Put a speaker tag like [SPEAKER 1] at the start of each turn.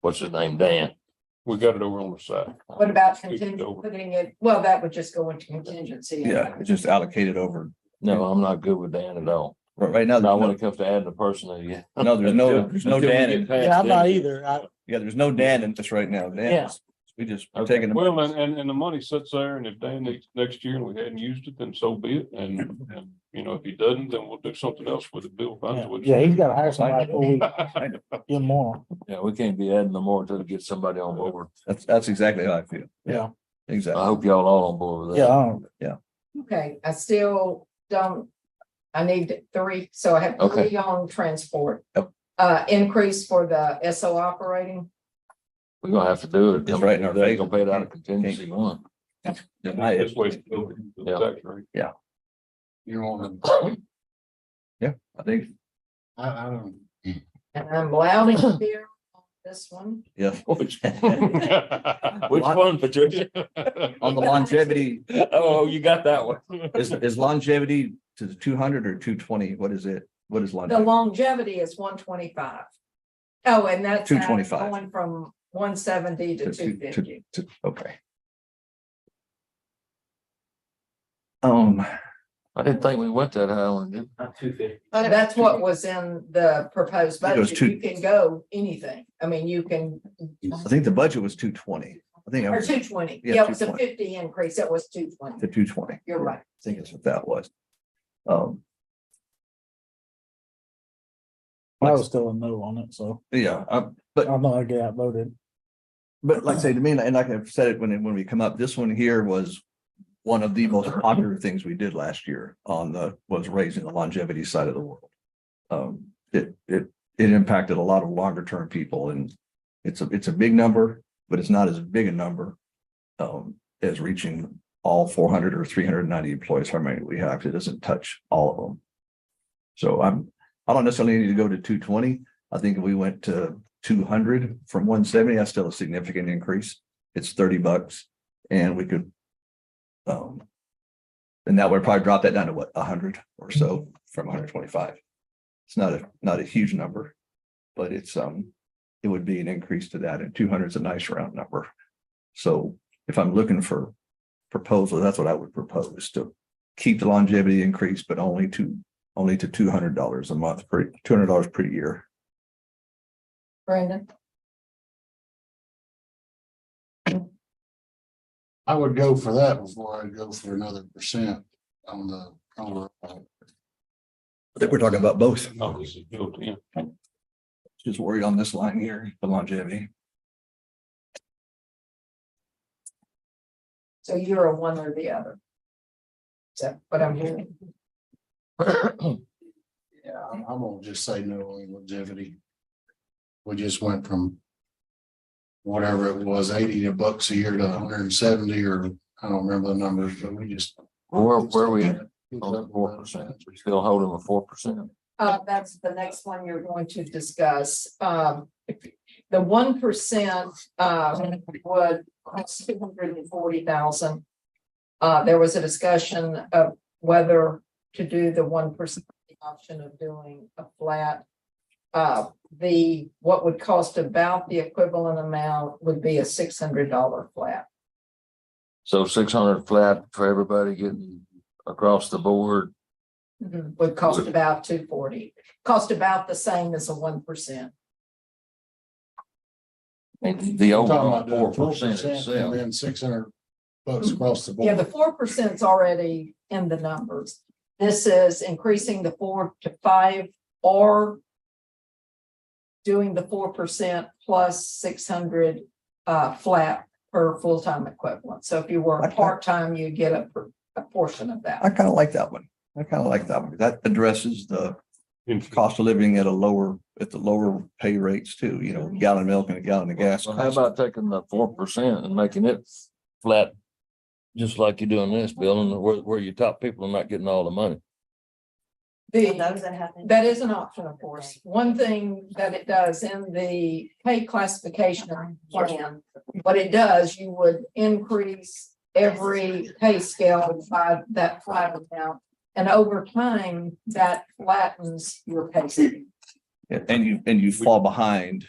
[SPEAKER 1] what's his name, Dan. We got it over on the side.
[SPEAKER 2] What about
[SPEAKER 1] Scoot it
[SPEAKER 2] contingent,
[SPEAKER 1] over.
[SPEAKER 2] putting it, well, that would just go into contingency.
[SPEAKER 3] Yeah, it's just allocated over,
[SPEAKER 1] No, I'm not good with Dan at all.
[SPEAKER 3] right right now,
[SPEAKER 1] Not when
[SPEAKER 3] no,
[SPEAKER 1] it comes to adding a person to you.
[SPEAKER 3] no, there's no, there's no Dan, in-
[SPEAKER 4] Yeah, I'm not either. I,
[SPEAKER 3] yeah, there's no Dan in this right now, Dan,
[SPEAKER 4] Yeah.
[SPEAKER 3] is- we just we're
[SPEAKER 1] Okay.
[SPEAKER 3] taking. the
[SPEAKER 5] Well, and, and, and the money sits there and if Dan next, next year and we hadn't used it, then so be it. And, and, you know, if he doesn't, then we'll do something else with it. Bill finds what.
[SPEAKER 4] yeah, he's got to hire somebody before we
[SPEAKER 3] I know.
[SPEAKER 4] give him more.
[SPEAKER 1] Yeah, we can't be adding no more until we get somebody on board.
[SPEAKER 3] That's, that's exactly how I feel.
[SPEAKER 4] Yeah.
[SPEAKER 1] I
[SPEAKER 3] Exactly.
[SPEAKER 1] hope y'all all on board with
[SPEAKER 4] Yeah,
[SPEAKER 1] that.
[SPEAKER 4] I don't-
[SPEAKER 2] Okay, I still don't, I need three, so I have
[SPEAKER 1] Okay.
[SPEAKER 2] three on transport.
[SPEAKER 3] Yep.
[SPEAKER 2] Uh, increase for the S O operating,
[SPEAKER 1] We're gonna have to do it.
[SPEAKER 3] It's right in our
[SPEAKER 1] They're
[SPEAKER 3] face.
[SPEAKER 1] gonna pay it out of contingency one.
[SPEAKER 3] Yeah, I-
[SPEAKER 5] This way. it's built into the
[SPEAKER 1] Yeah.
[SPEAKER 5] tax rate.
[SPEAKER 3] Yeah.
[SPEAKER 5] You want them,
[SPEAKER 3] I think,
[SPEAKER 5] I, I don't.
[SPEAKER 2] and I'm loud and clear on this one.
[SPEAKER 3] yeah.
[SPEAKER 1] Which
[SPEAKER 3] Which
[SPEAKER 1] one, Patricia?
[SPEAKER 3] On the longevity,
[SPEAKER 1] Oh, you got that one.
[SPEAKER 3] is, is longevity to the two hundred or two twenty? What is it? What is
[SPEAKER 2] The
[SPEAKER 3] longevity?
[SPEAKER 2] longevity is one twenty-five. Oh, and that's.
[SPEAKER 3] 225.
[SPEAKER 2] Going from one seventy to
[SPEAKER 3] To- to-
[SPEAKER 2] two
[SPEAKER 3] to-
[SPEAKER 2] fifty.
[SPEAKER 3] to- Okay. Um,
[SPEAKER 1] I didn't think we went that high on it.
[SPEAKER 2] That's what was in the proposed
[SPEAKER 3] It was
[SPEAKER 2] budget.
[SPEAKER 3] two-
[SPEAKER 2] You can go anything. I mean, you can,
[SPEAKER 3] I think the budget was two twenty. I think I
[SPEAKER 2] or
[SPEAKER 3] was
[SPEAKER 2] two twenty.
[SPEAKER 3] Yeah,
[SPEAKER 2] Yeah, it was a
[SPEAKER 3] 220.
[SPEAKER 2] fifty increase. It was two twenty.
[SPEAKER 3] to two twenty.
[SPEAKER 2] You're right.
[SPEAKER 3] I think that's what that was. Um,
[SPEAKER 4] I was still a no on it, so
[SPEAKER 3] yeah, I-
[SPEAKER 4] I'm not gonna get outvoted.
[SPEAKER 3] But like I say to me, and like I've said it when, it- when we come up, this one here was one of the most popular things we did last year on the, was raising the longevity side of the world. Um, it, it, it impacted a lot of longer term people and it's a, it's a big number, but it's not as big a number um, as reaching all four hundred or three hundred and ninety employees, how many we have, it doesn't touch all of them. So I'm, I don't necessarily need to go to two twenty. I think if we went to two hundred from one seventy, that's still a significant increase. It's thirty bucks and we could. Um. And that would probably drop that down to what, hundred or so from hundred twenty-five. It's not a, not a huge number, but it's, um, it would be an increase to that and two hundred is a nice round number. So if I'm looking for proposals, that's what I would propose to keep the longevity increase, but only to, only to two hundred dollars a month, per two hundred dollars per year.
[SPEAKER 2] Brandon?
[SPEAKER 6] I would go for that before I'd go for another percent on the, on the.
[SPEAKER 3] I think we're talking about both.
[SPEAKER 5] No, this is built in.
[SPEAKER 3] Just worried on this line here, the longevity.
[SPEAKER 2] So you're a one or the other. So, but I'm hearing,
[SPEAKER 6] Yeah, I'm, I'm gonna just say no on longevity. We just went from. Whatever it was, eighty to bucks a year to hundred and seventy, or I don't remember the numbers, but we just.
[SPEAKER 1] Where, where we at on the four percent? We still holding a four percent?
[SPEAKER 2] uh, that's the next one you're going to discuss. Um, the one percent, uh, would cost two hundred and forty thousand. Uh, there was a discussion of whether to do the one percent option of doing a flat. Uh, the, what would cost about the equivalent amount would be a six hundred dollar flat.
[SPEAKER 1] So six hundred flat for everybody getting across the board.
[SPEAKER 2] Would cost about two forty, cost about the same as a one percent.
[SPEAKER 1] And the
[SPEAKER 6] Talking
[SPEAKER 1] overall
[SPEAKER 6] about
[SPEAKER 1] four
[SPEAKER 6] doing
[SPEAKER 1] percent
[SPEAKER 6] 4% And
[SPEAKER 1] itself.
[SPEAKER 6] then six hundred bucks across the board.
[SPEAKER 2] Yeah, the four percent's already in the numbers. This is increasing the four to five or doing the four percent plus six hundred uh flat per full-time equivalent. So if you were
[SPEAKER 3] Okay.
[SPEAKER 2] part-time, you get a per- a portion of that.
[SPEAKER 3] I kind of like that one. I kind of like that one. That addresses the
[SPEAKER 5] In-
[SPEAKER 3] cost of living at a lower, at the lower pay rates too, you know, gallon of milk and a gallon of gas.
[SPEAKER 1] So how
[SPEAKER 3] cost.
[SPEAKER 1] about taking the four percent and making it flat? Just like you're doing this, Bill, and where, where your top people are not getting all the money.
[SPEAKER 2] The- That is an option, of course. One thing that it does in the pay classification plan, what it does, you would increase every pay scale by that flat amount. And over time, that flattens your pay. scale.
[SPEAKER 3] Yeah, And you, and you fall behind